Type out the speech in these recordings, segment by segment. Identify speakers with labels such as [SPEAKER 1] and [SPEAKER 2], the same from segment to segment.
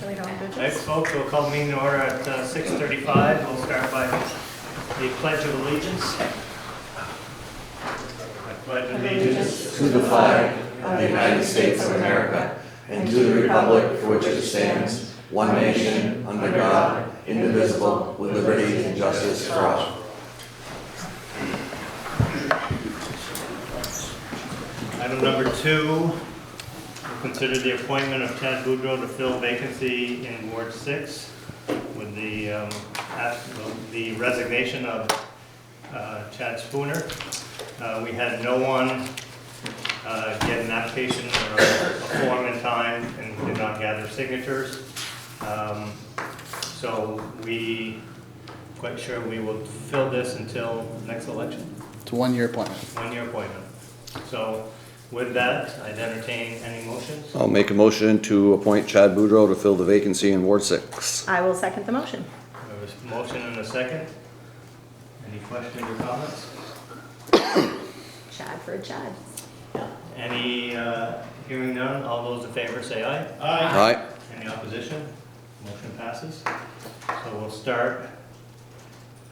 [SPEAKER 1] Thanks, folks. We'll call meeting to order at uh, 6:35. We'll start by the Pledge of Allegiance. I pledge allegiance.
[SPEAKER 2] to the flag of the United States of America and to the republic for which it stands, one nation, under God, indivisible, with liberty and justice for all.
[SPEAKER 1] Item number two, we'll consider the appointment of Ted Boudreau to fill vacancy in Ward 6 with the um, ask- the resignation of uh, Chad Spooner. Uh, We had no one uh, get an application or a form in time and did not gather signatures. Um, So we, quite sure we will fill this until next election
[SPEAKER 3] It's a one-year appointment.
[SPEAKER 1] one-year appointment. So with that, I'd entertain any motions.
[SPEAKER 4] I'll make a motion to appoint Chad Boudreau to fill the vacancy in Ward Six.
[SPEAKER 5] I will second the motion.
[SPEAKER 1] There was a motion and a second. Any questions or comments?
[SPEAKER 5] Chad for a Chad.
[SPEAKER 1] Any, uh, hearing none, all those in favor say aye.
[SPEAKER 4] Aye.
[SPEAKER 1] Any opposition? Motion passes. So we'll start.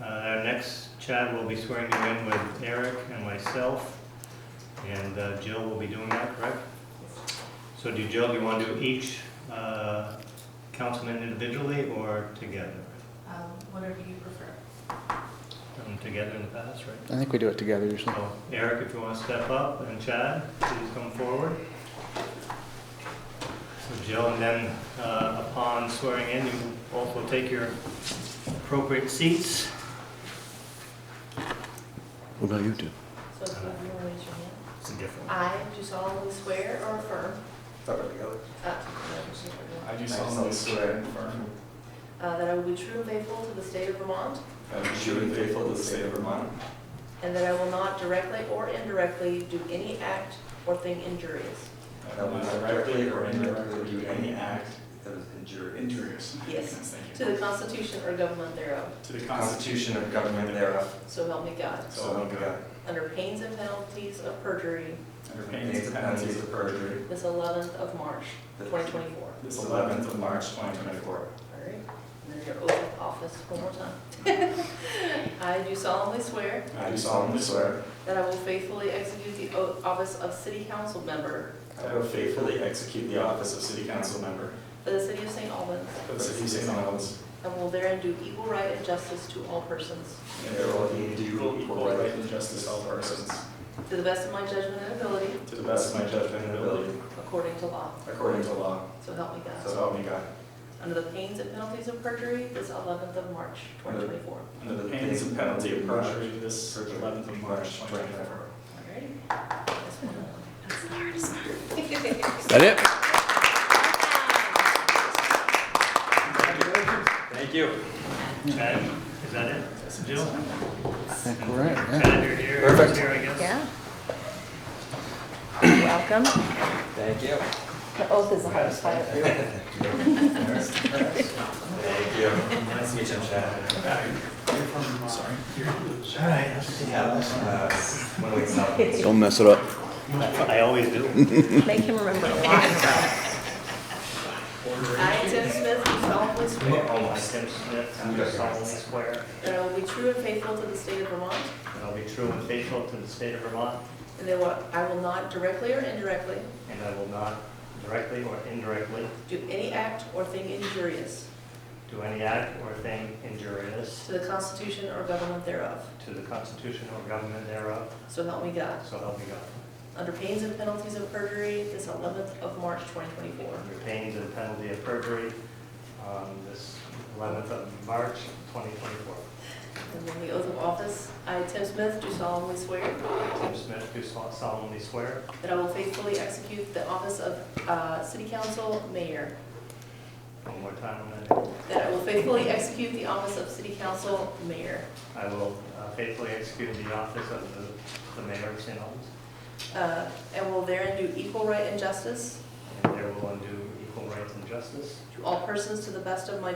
[SPEAKER 1] Uh, Our next Chad will be swearing you in with Eric and myself, and uh, Jill will be doing that, correct? So do Jill, do you want to do each uh, councilman individually or together?
[SPEAKER 6] Um, whatever you prefer.
[SPEAKER 1] Done together in the past, right?
[SPEAKER 3] I think we do it together usually.
[SPEAKER 1] So Eric, if you want to step up, and Chad, please come forward. So Jill, and then uh, upon swearing in, you both will take your appropriate seats.
[SPEAKER 4] What about you two?
[SPEAKER 6] So if you want to raise your hand.
[SPEAKER 1] It's a different one.
[SPEAKER 6] I do solemnly swear or affirm. Uh, no, it's just
[SPEAKER 7] I
[SPEAKER 6] right
[SPEAKER 7] do solemnly swear and affirm
[SPEAKER 6] now. Uh, that I will be true and faithful to the state of Vermont,
[SPEAKER 7] that I will be true and faithful to the state of Vermont,
[SPEAKER 6] and that I will not directly or indirectly do any act or thing injurious.
[SPEAKER 7] that I will not directly or indirectly do any act
[SPEAKER 2] That was injurious.
[SPEAKER 7] injurious
[SPEAKER 6] Yes,
[SPEAKER 7] thank
[SPEAKER 6] to
[SPEAKER 7] you,
[SPEAKER 6] the Constitution or government thereof,
[SPEAKER 7] to the Constitution of government thereof,
[SPEAKER 6] so help me God.
[SPEAKER 7] so uh, help me God,
[SPEAKER 6] Under pains and penalties of perjury,
[SPEAKER 7] under pains and penalties of perjury,
[SPEAKER 6] this 11th of March, 2024.
[SPEAKER 7] this 11th of March, 2024.
[SPEAKER 6] All right, and then your oath of office one more time. I do solemnly swear
[SPEAKER 7] I do solemnly swear
[SPEAKER 6] that I will faithfully execute the oath- office of city council member
[SPEAKER 7] that I will faithfully execute the office of city council member
[SPEAKER 6] for the city of St. Albans,
[SPEAKER 7] for the city of St. Albans,
[SPEAKER 6] and will therein do equal right and justice to all persons,
[SPEAKER 7] and there will be due equal right and justice to all persons,
[SPEAKER 6] to the best of my judgment and ability,
[SPEAKER 7] to the best of my judgment and ability,
[SPEAKER 6] according to law.
[SPEAKER 7] according to law,
[SPEAKER 6] So help me
[SPEAKER 7] so
[SPEAKER 6] God.
[SPEAKER 7] help me God.
[SPEAKER 6] Under the pains and penalties of perjury, this 11th of March, 2024.
[SPEAKER 7] Under the pains and penalty of perjury, this eleventh of March, twenty twenty-four.
[SPEAKER 6] All right.
[SPEAKER 4] Is that it?
[SPEAKER 7] Thank you.
[SPEAKER 1] Chad, is that it? Jill?
[SPEAKER 3] I think we're right, yeah.
[SPEAKER 1] Chad, you're here.
[SPEAKER 7] Perfect.
[SPEAKER 1] Here, I guess.
[SPEAKER 5] Yeah. Welcome.
[SPEAKER 7] Thank you.
[SPEAKER 5] The oath is the hardest part.
[SPEAKER 7] Thank you. Nice to meet you, Chad. uh, Sorry.
[SPEAKER 1] All right, let's see.
[SPEAKER 7] Uh, When we stop.
[SPEAKER 4] Don't mess it up.
[SPEAKER 1] I always do.
[SPEAKER 5] Make him remember a lot.
[SPEAKER 6] I, Tim Smith, do solemnly swear
[SPEAKER 1] Oh, my Tim Smith, I do solemnly swear
[SPEAKER 6] that I will be true and faithful to the state of Vermont,
[SPEAKER 1] that I'll be true and faithful to the state of Vermont,
[SPEAKER 6] And that what- I will not directly or indirectly
[SPEAKER 1] and I will not directly or indirectly
[SPEAKER 6] do any act or thing injurious
[SPEAKER 1] do any act or thing injurious
[SPEAKER 6] to the Constitution or government thereof.
[SPEAKER 1] To the Constitution or government thereof,
[SPEAKER 6] So help me God.
[SPEAKER 1] so help me God.
[SPEAKER 6] Under pains and penalties of perjury, this 11th of March, 2024.
[SPEAKER 1] Under pains and penalty of perjury on this 11th of March, 2024.
[SPEAKER 6] And then the oath of office, I, Tim Smith, do solemnly swear
[SPEAKER 1] Tim Smith, do solemnly swear
[SPEAKER 6] that I will faithfully execute the office of uh, City Council Mayor,
[SPEAKER 1] one more time, and then
[SPEAKER 6] that I will faithfully execute the office of City Council Mayor
[SPEAKER 1] I will uh, faithfully execute the office of the- the mayor of St. Albans,
[SPEAKER 6] uh, and will therein do equal right and justice
[SPEAKER 1] and there will undo equal rights and justice.
[SPEAKER 6] to all persons to the best of my